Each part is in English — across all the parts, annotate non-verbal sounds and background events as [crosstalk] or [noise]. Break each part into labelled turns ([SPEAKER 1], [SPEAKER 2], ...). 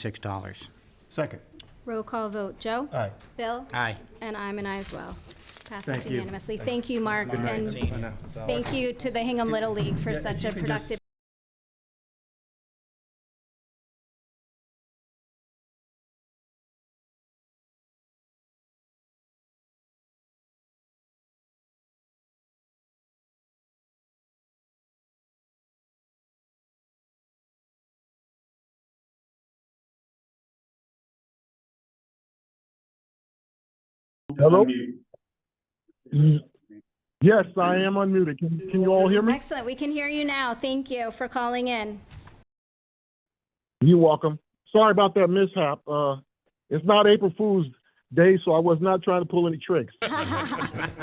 [SPEAKER 1] $186.
[SPEAKER 2] Second.
[SPEAKER 3] Roll call vote, Joe?
[SPEAKER 4] Uh.
[SPEAKER 2] Aye.
[SPEAKER 3] Bill?
[SPEAKER 1] Aye.
[SPEAKER 3] And I'm an aye as well. Passes
[SPEAKER 2] Thank you.
[SPEAKER 3] unanimously. Thank you, Mark, and
[SPEAKER 2] I know.
[SPEAKER 3] thank you to the Hingham Little League for such a productive
[SPEAKER 5] Hello? Mm, Yes, I am unmuted. Can, can you all hear me?
[SPEAKER 3] Excellent. We can hear you now. Thank you for calling in.
[SPEAKER 5] You're welcome. Sorry about that mishap. Uh, it's not April Fool's Day, so I was not trying to pull any tricks.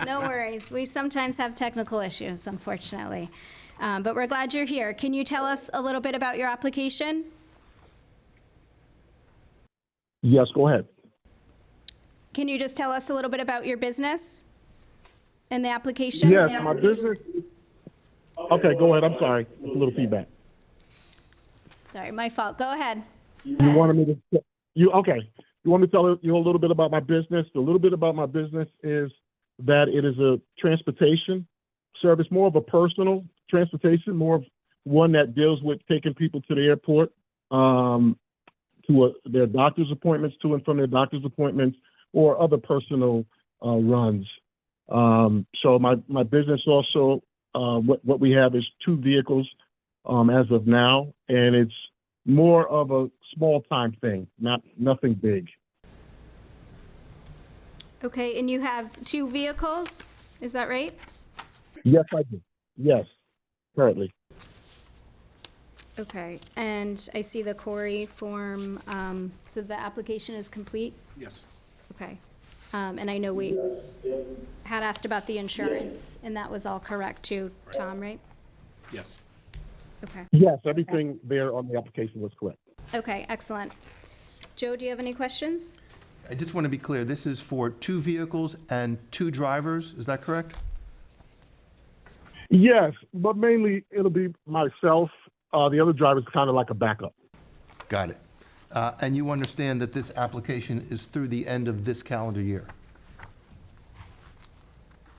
[SPEAKER 3] No worries. We sometimes have technical issues, unfortunately. Um, But we're glad you're here. Can you tell us a little bit about your application?
[SPEAKER 5] Yes, go ahead.
[SPEAKER 3] Can you just tell us a little bit about your business and the application?
[SPEAKER 5] Yes, my business. Okay, go ahead. I'm sorry. A little feedback.
[SPEAKER 3] Sorry, my fault. Go ahead.
[SPEAKER 5] You wanted me to, you, okay. You want me to tell you a little bit about my business? A little bit about my business is that it is a transportation service, more of a personal transportation, more of one that deals with taking people to the airport, um, to a, their doctor's appointments, to and from their doctor's appointments, or other personal uh, runs. Um, so my, my business also, uh, what, what we have is two vehicles um, as of now, and it's more of a small time thing, not nothing big.
[SPEAKER 3] Okay, and you have two vehicles? Is that right?
[SPEAKER 5] Yes, I do. Yes, currently.
[SPEAKER 3] Okay, and I see the Corey form, um, so the application is complete?
[SPEAKER 2] Yes.
[SPEAKER 3] Okay. Um, and I know we had asked about the insurance, and that was all correct too, Tom, right?
[SPEAKER 2] Yes.
[SPEAKER 3] Okay,
[SPEAKER 5] Yes, everything there on the application was correct.
[SPEAKER 3] okay, excellent. Joe, do you have any questions?
[SPEAKER 4] I just want to be clear, this is for two vehicles and two drivers, is that correct?
[SPEAKER 5] Yes, but mainly it'll be myself. Uh, the other driver's kind of like a backup.
[SPEAKER 4] Got it. Uh, And you understand that this application is through the end of this calendar year?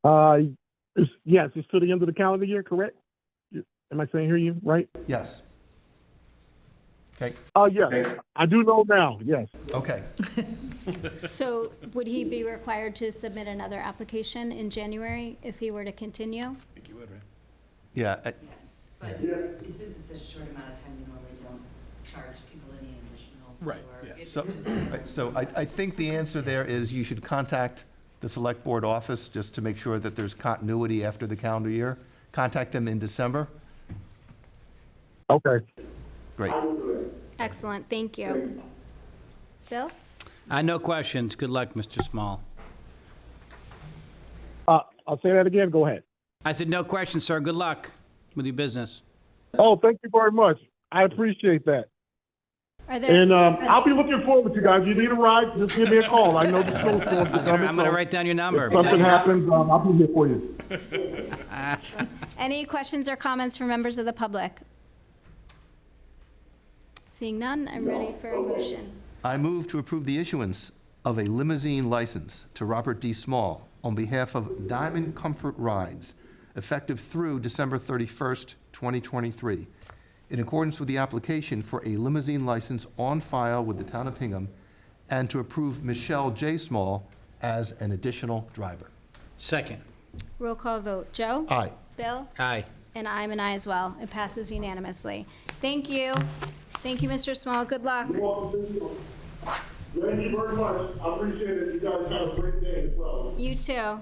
[SPEAKER 5] Uh, it's, yes, it's to the end of the calendar year, correct? Am I saying hear you right?
[SPEAKER 4] Yes. Okay,
[SPEAKER 5] Uh, yes, I do know now. Yes,
[SPEAKER 4] [laughs] okay.
[SPEAKER 3] So would he be required to submit another application in January if he were to continue?
[SPEAKER 4] Yeah, I-
[SPEAKER 6] But since it's such a short amount of time, you normally don't charge people any additional.
[SPEAKER 2] Right,
[SPEAKER 6] or
[SPEAKER 2] yeah.
[SPEAKER 6] if
[SPEAKER 4] so,
[SPEAKER 6] it's just-
[SPEAKER 4] right, so I, I think the answer there is you should contact the Select Board office just to make sure that there's continuity after the calendar year. Contact them in December.
[SPEAKER 5] okay.
[SPEAKER 4] Great.
[SPEAKER 3] Excellent, thank you. Bill?
[SPEAKER 1] Uh, No questions. Good luck, Mr. Small.
[SPEAKER 5] Uh, I'll say that again. Go ahead.
[SPEAKER 1] I said, no questions, sir. Good luck with your business.
[SPEAKER 5] Oh, thank you very much. I appreciate that.
[SPEAKER 3] Are there?
[SPEAKER 5] And um, I'll be looking forward to you guys. You need a ride, just give me a call. I know the snowstorm is coming.
[SPEAKER 1] I'm going to
[SPEAKER 5] so
[SPEAKER 1] write down your number.
[SPEAKER 5] If something happens, um, I'll be here for you.
[SPEAKER 3] Any questions or comments from members of the public? Seeing none, I'm ready for a motion.
[SPEAKER 4] I move to approve the issuance of a limousine license to Robert D. Small on behalf of Diamond Comfort Rides, effective through December 31st, 2023, in accordance with the application for a limousine license on file with the town of Hingham, and to approve Michelle J. Small as an additional driver.
[SPEAKER 1] Second.
[SPEAKER 3] Roll call vote, Joe?
[SPEAKER 4] Aye.
[SPEAKER 3] Bill?
[SPEAKER 1] Aye.
[SPEAKER 3] And I'm an aye as well. It passes unanimously. Thank you. Thank you, Mr. Small. Good luck.
[SPEAKER 5] Thank you very much. I appreciate it. You guys have a great day as well.
[SPEAKER 3] You too.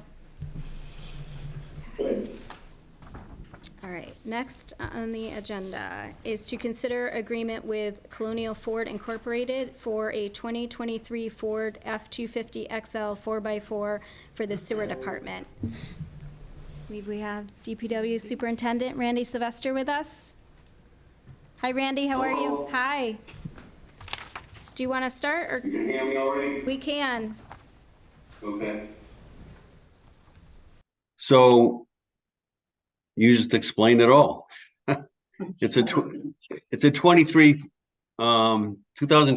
[SPEAKER 3] All right, next on the agenda is to consider agreement with Colonial Ford Incorporated for a 2023 Ford F-250 XL 4x4 for the sewer department. I believe we have DPW Superintendent Randy Sylvester with us. Hi, Randy, how are you? Hi. Do you want to start, or
[SPEAKER 7] You can hear me already?
[SPEAKER 3] we can?
[SPEAKER 7] Okay. So [laughs] you just explained it all. It's a, tw- it's a 23 um, 2020